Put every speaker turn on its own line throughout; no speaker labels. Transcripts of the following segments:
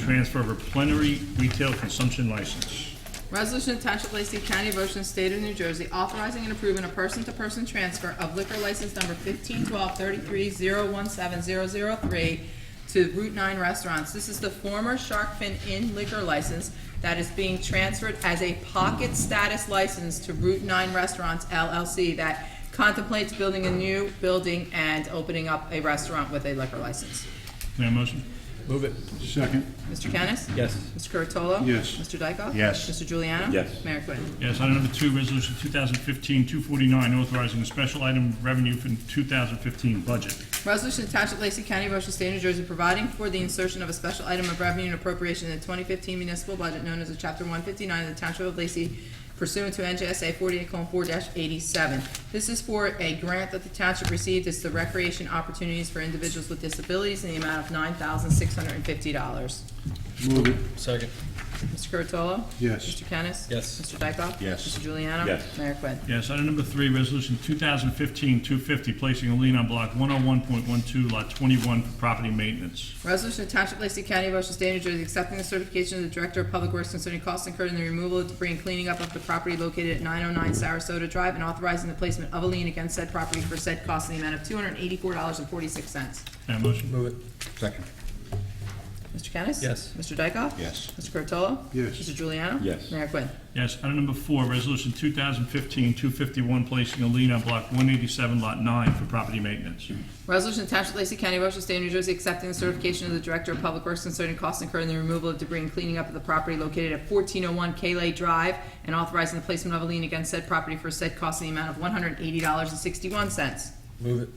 Transfer of a plenary retail consumption license.
Resolution to Township of Lacey County, Ocean State of New Jersey, authorizing and approving a person-to-person transfer of liquor license number fifteen twelve thirty-three zero one seven zero zero three to Route Nine Restaurants. This is the former Shark Fin Inn liquor license that is being transferred as a pocket status license to Route Nine Restaurants LLC that contemplates building a new building and opening up a restaurant with a liquor license.
May I have a motion?
Move it.
Second,
Mr. Kennis?
Yes.
Mr. Curatolo?
Yes.
Mr. Dykoff?
Yes.
Mr. Juliano?
Yes.
Mayor Quinn.
Yes, item number two, resolution 2015-249, authorizing a special item revenue for 2015 budget.
Resolution to Township of Lacey County, Ocean State, New Jersey, providing for the insertion of a special item of revenue and appropriation in the twenty fifteen municipal budget known as the chapter one fifty-nine of the Township of Lacey pursuant to NJSA forty-eight four eighty-seven. This is for a grant that the township received. It's the recreation opportunities for individuals with disabilities in the amount of nine thousand six hundred and fifty dollars.
move it,
Second.
Mr. Curatolo?
Yes.
Mr. Kennis?
Yes.
Mr. Dykoff?
Yes.
Mr. Juliano?
Yes.
Mayor Quinn.
Yes, item number three, resolution 2015-250, placing a lien on block 101.12, lot 21 for property maintenance.
Resolution to Township of Lacey County, Ocean State, New Jersey, accepting the certification of the Director of Public Works concerning costs incurred in the removal of debris and cleaning up of the property located at nine oh nine Sarasota Drive and authorizing the placement of a lien against said property for said cost in the amount of two hundred and eighty-four dollars and forty-six cents.
May I have a motion?
Move it.
Second.
Mr. Kennis?
Yes.
Mr. Dykoff?
Yes.
Mr. Curatolo?
Yes.
Mr. Juliano?
Yes.
Mayor Quinn.
Yes, item number four, resolution 2015-251, placing a lien on block 187, lot 9 for property maintenance.
Resolution to Township of Lacey County, Ocean State, New Jersey, accepting the certification of the Director of Public Works concerning costs incurred in the removal of debris and cleaning up of the property located at fourteen oh one Kayle Drive and authorizing the placement of a lien against said property for said cost in the amount of one hundred and eighty dollars and sixty-one cents.
Move it.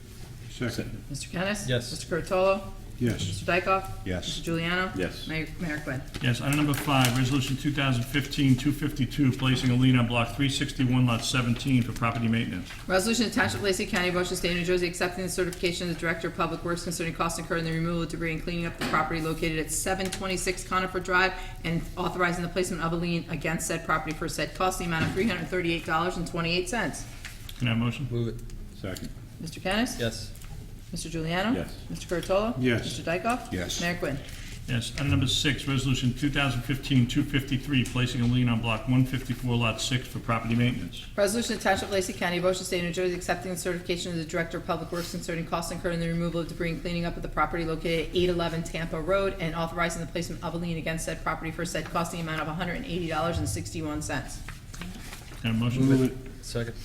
second,
Mr. Kennis?
Yes.
Mr. Curatolo?
yes,
Mr. Dykoff?
Yes.
Mr. Juliano?
Yes.
Mayor, Mayor Quinn.
Yes, item number five, resolution 2015-252, placing a lien on block 361, lot 17 for property maintenance.
Resolution to Township of Lacey County, Ocean State, New Jersey, accepting the certification of the Director of Public Works concerning costs incurred in the removal of debris and cleaning up the property located at seven twenty-six Conifer Drive and authorizing the placement of a lien against said property for said cost in the amount of three hundred and thirty-eight dollars and twenty-eight cents.
Can I have a motion?
Move it.
second,
Mr. Kennis?
Yes.
Mr. Juliano?
Yes.
Mr. Curatolo?
Yes.
Mr. Dykoff?
Yes.
Mayor Quinn.
Yes, item number six, resolution 2015-253, placing a lien on block 154, lot 6 for property maintenance.
Resolution to Township of Lacey County, Ocean State, New Jersey, accepting the certification of the Director of Public Works concerning costs incurred in the removal of debris and cleaning up of the property located at eight eleven Tampa Road and authorizing the placement of a lien against said property for said costing amount of hundred and eighty dollars and sixty-one cents.
Can I have a motion?
move it,
Second.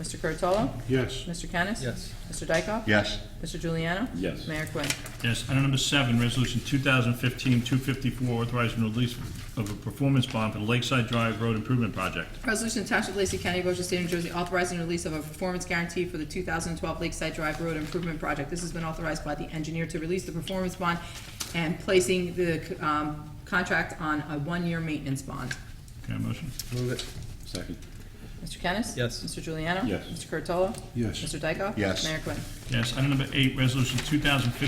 Mr. Curatolo?
yes,
Mr. Kennis?
Yes.
Mr. Dykoff?
yes,
Mr. Juliano?
Yes.
Mayor Quinn.
Yes, item number seven, resolution 2015-254, authorizing release of a performance bond for the Lakeside Drive Road Improvement Project.
Resolution to Township of Lacey County, Ocean State, New Jersey, authorizing release of a performance guarantee for the 2012 Lakeside Drive Road Improvement Project. This has been authorized by the engineer to release the performance bond and placing the um, contract on a one-year maintenance bond.
Can I have a motion?
Move it.
second,
Mr. Kennis?
Yes.
Mr. Juliano?
Yes.
Mr. Curatolo?
Yes.
Mr. Dykoff?
Yes.
Mayor Quinn.
Yes, item number eight, resolution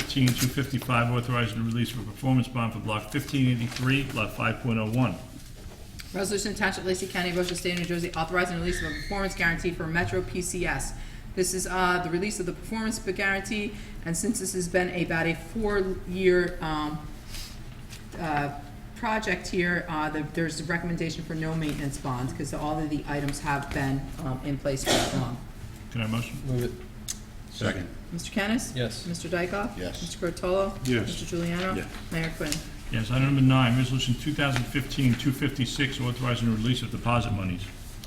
2015-255, authorizing the release of a performance bond for block 1583, lot 5.01.
Resolution to Township of Lacey County, Ocean State, New Jersey, authorizing the release of a performance guarantee for Metro PCS. This is uh, the release of the performance guarantee, and since this has been about a four-year um, uh, project here, uh, the- there's a recommendation for no maintenance bonds, because all of the items have been um, in place for that long.
Can I have a motion?
Move it.
second,
Mr. Kennis?
Yes.
Mr. Dykoff?
Yes.
Mr. Curatolo?
Yes.
Mr. Juliano?
Yes.
Mayor Quinn.
Yes, item number nine, resolution 2015-256, authorizing the release of deposit monies.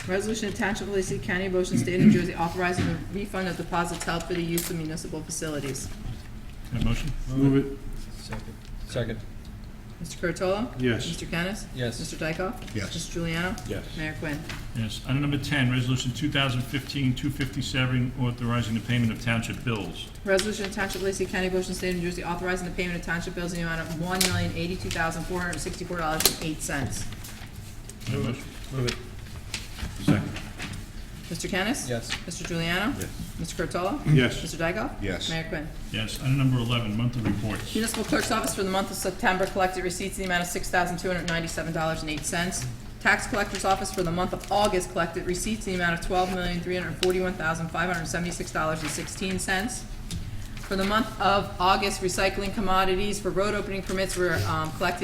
Resolution of Township of Lacey County, Ocean State, New Jersey, authorizing the refund of deposits held for the use of municipal facilities.
Can I have a motion?
move it,
Second. Second.
Mr. Curatolo?
Yes.
Mr. Kennis?
Yes.
Mr. Dykoff?
Yes.
Mr. Juliano?
Yes.
Mayor Quinn.
Yes, item number 10, resolution 2015-257, authorizing the payment of township bills.
Resolution of Township of Lacey County, Ocean State, New Jersey, authorizing the payment of township bills in the amount of one million eighty-two thousand four hundred sixty-four dollars and eight cents.
Can I have a motion?
Move it.
second,
Mr. Kennis?
Yes.
Mr. Juliano?
Yes.
Mr. Curatolo?
yes,
Mr. Dykoff?
Yes.
Mayor Quinn.
Yes, item number 11, monthly reports.
Municipal Clerk's Office for the month of September collected receipts in the amount of six thousand two hundred ninety-seven dollars and eight cents. Tax Collector's Office for the month of August collected receipts in the amount of twelve million three hundred forty-one thousand five hundred seventy-six dollars and sixteen cents. For the month of August, recycling commodities for road opening permits were, um, collected